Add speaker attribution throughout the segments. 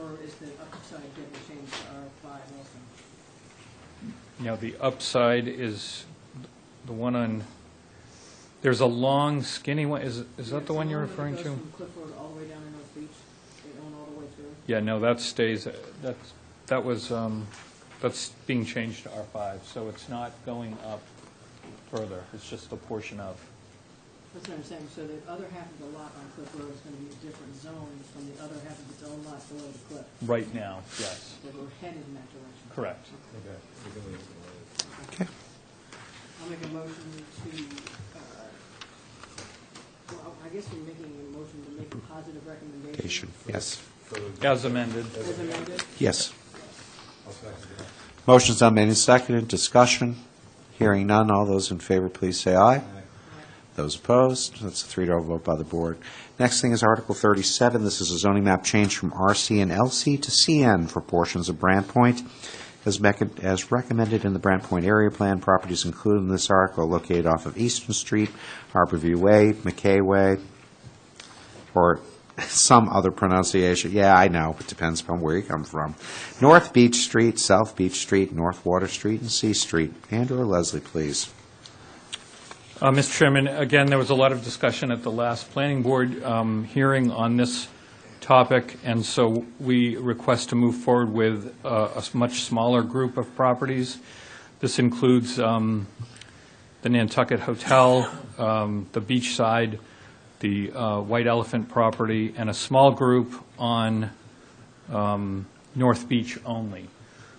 Speaker 1: or is the upside going to change to R five also?
Speaker 2: Now, the upside is the one on, there's a long skinny one, is, is that the one you're referring
Speaker 1: It goes
Speaker 2: to?
Speaker 1: from Cliff Road all the way down to North Beach, they own all the way through.
Speaker 2: Yeah, no, that stays, that's, that was, um, that's being changed to R5, so it's not going up further, it's just a portion of.
Speaker 1: That's what I'm saying, so the other half of the lot on Cliff Road is going to be a different zone from the other half of its own lot below the cliff,
Speaker 2: Right now, yes,
Speaker 1: that we're headed in that direction.
Speaker 2: correct.
Speaker 3: Okay.
Speaker 1: I'll make a motion to, uh, well, I guess we're making a motion to make a positive recommendation.
Speaker 3: Yes.
Speaker 2: As amended.
Speaker 1: As amended,
Speaker 3: Yes. Motion's now made and seconded, discussion, hearing none, all those in favor, please say aye. Those opposed, that's a three-to vote by the board. Next thing is Article 37, this is a zoning map change from RC and LC to CN for portions of Brant Point. As mec- as recommended in the Brant Point Area Plan, properties included in this article are located off of Eastern Street, Harborview Way, McKay Way, or some other pronunciation. Yeah, I know, it depends upon where you come from. North Beach Street, South Beach Street, North Water Street, and C Street. Andrew or Leslie, please.
Speaker 2: Uh, Mr. Chairman, again, there was a lot of discussion at the last planning board um, hearing on this topic, and so we request to move forward with uh, a s- much smaller group of properties. This includes um, the Nantucket Hotel, um, the Beachside, the uh, White Elephant property, and a small group on um, North Beach only.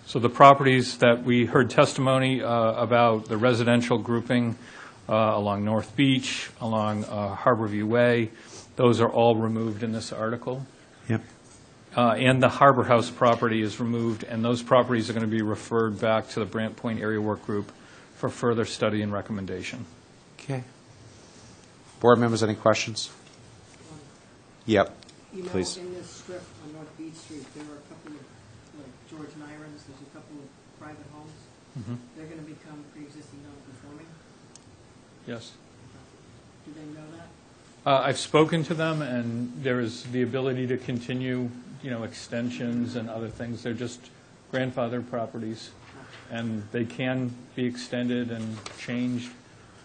Speaker 2: So the properties that we heard testimony uh, about, the residential grouping uh, along North Beach, along uh, Harborview Way, those are all removed in this article.
Speaker 3: Yep.
Speaker 2: Uh, And the Harbor House property is removed, and those properties are going to be referred back to the Brant Point Area Work Group for further study and recommendation.
Speaker 3: Okay. Board members, any questions? Yep.
Speaker 1: you know,
Speaker 3: Please.
Speaker 1: in this strip on North Beach Street, there are a couple of, like George Nyron's, there's a couple of private homes.
Speaker 4: Mm-hmm.
Speaker 1: They're going to become pre-existing non-conforming.
Speaker 2: Yes.
Speaker 1: Do they know that?
Speaker 2: Uh, I've spoken to them, and there is the ability to continue, you know, extensions and other things. They're just grandfather properties, and they can be extended and changed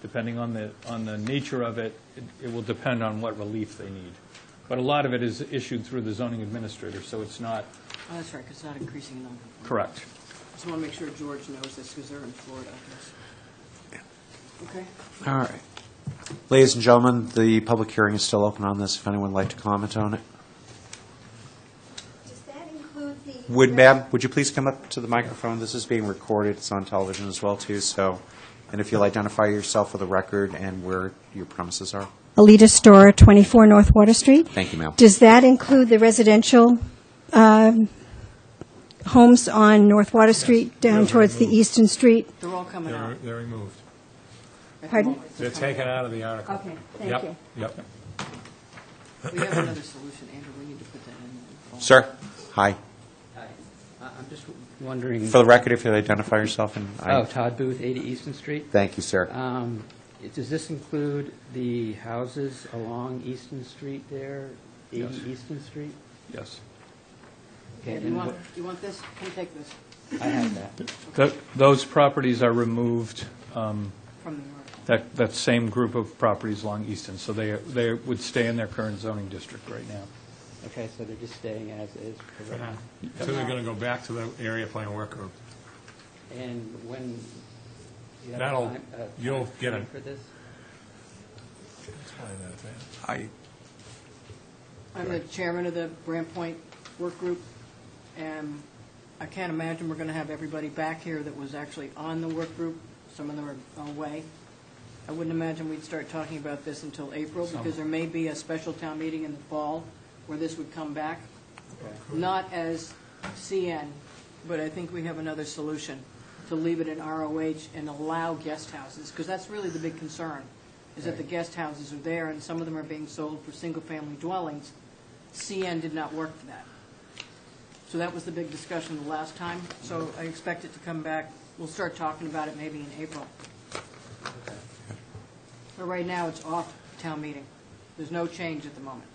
Speaker 2: depending on the, on the nature of it. It- It will depend on what relief they need. But a lot of it is issued through the zoning administrator, so it's not
Speaker 1: Oh, that's right, 'cause it's not increasing non-conforming.
Speaker 2: correct.
Speaker 1: Just want to make sure George knows this, because they're in Florida, I guess. Okay,
Speaker 3: All right. Ladies and gentlemen, the public hearing is still open on this, if anyone would like to comment on it.
Speaker 5: Does that include the?
Speaker 3: Would, ma'am, would you please come up to the microphone? This is being recorded, it's on television as well, too, so, and if you'll identify yourself for the record and where your premises are.
Speaker 5: Alita Store, 24 North Water Street.
Speaker 3: Thank you, ma'am.
Speaker 5: Does that include the residential um, homes on North Water Street down towards the Eastern Street?
Speaker 1: they're all coming out.
Speaker 4: They're, they're removed.
Speaker 1: at the
Speaker 5: Pardon?
Speaker 1: moment.
Speaker 4: They're taken out of the article.
Speaker 5: Okay, thank
Speaker 4: Yep,
Speaker 5: you.
Speaker 4: Yep.
Speaker 1: We have another solution, Andrew, we need to put that in.
Speaker 3: Sir? Hi.
Speaker 6: I- Uh, I'm just wondering,
Speaker 3: For the record, if you'd identify yourself and
Speaker 6: oh,
Speaker 3: I.
Speaker 6: Todd Booth, 80 Easton Street.
Speaker 3: Thank you, sir.
Speaker 6: Um, Does this include the houses along Easton Street there, 80
Speaker 2: Yes.
Speaker 6: Easton Street?
Speaker 2: Yes.
Speaker 6: Okay,
Speaker 1: You
Speaker 6: and
Speaker 1: want,
Speaker 6: what-
Speaker 1: you want this? Come take this
Speaker 6: I have that.
Speaker 2: Th- Those properties are removed, um,
Speaker 1: from the article.
Speaker 2: that, that same group of properties along Easton, so they, they would stay in their current zoning district right now.
Speaker 6: Okay, so they're just staying as is. for
Speaker 4: So
Speaker 6: right
Speaker 4: they're going to go back to the area plan work group.
Speaker 6: now. And when, you have a
Speaker 4: That'll-
Speaker 6: time- a
Speaker 4: you'll
Speaker 6: time
Speaker 4: get
Speaker 6: frame
Speaker 4: it.
Speaker 6: For this?
Speaker 3: I,
Speaker 1: I'm the chairman of the Brant Point Work Group, and I can't imagine we're going to have everybody back here that was actually on the work group. Some of them are away. I wouldn't imagine we'd start talking about this until April, because there may be a special town meeting in the fall where this would come back, not as CN, but I think we have another solution, to leave it in ROH and allow guest houses, because that's really the big concern, is that the guest houses are there, and some of them are being sold for single-family dwellings. CN did not work for that. So that was the big discussion the last time, so I expect it to come back, we'll start talking about it maybe in April. But right now, it's off town meeting. There's no change at the moment.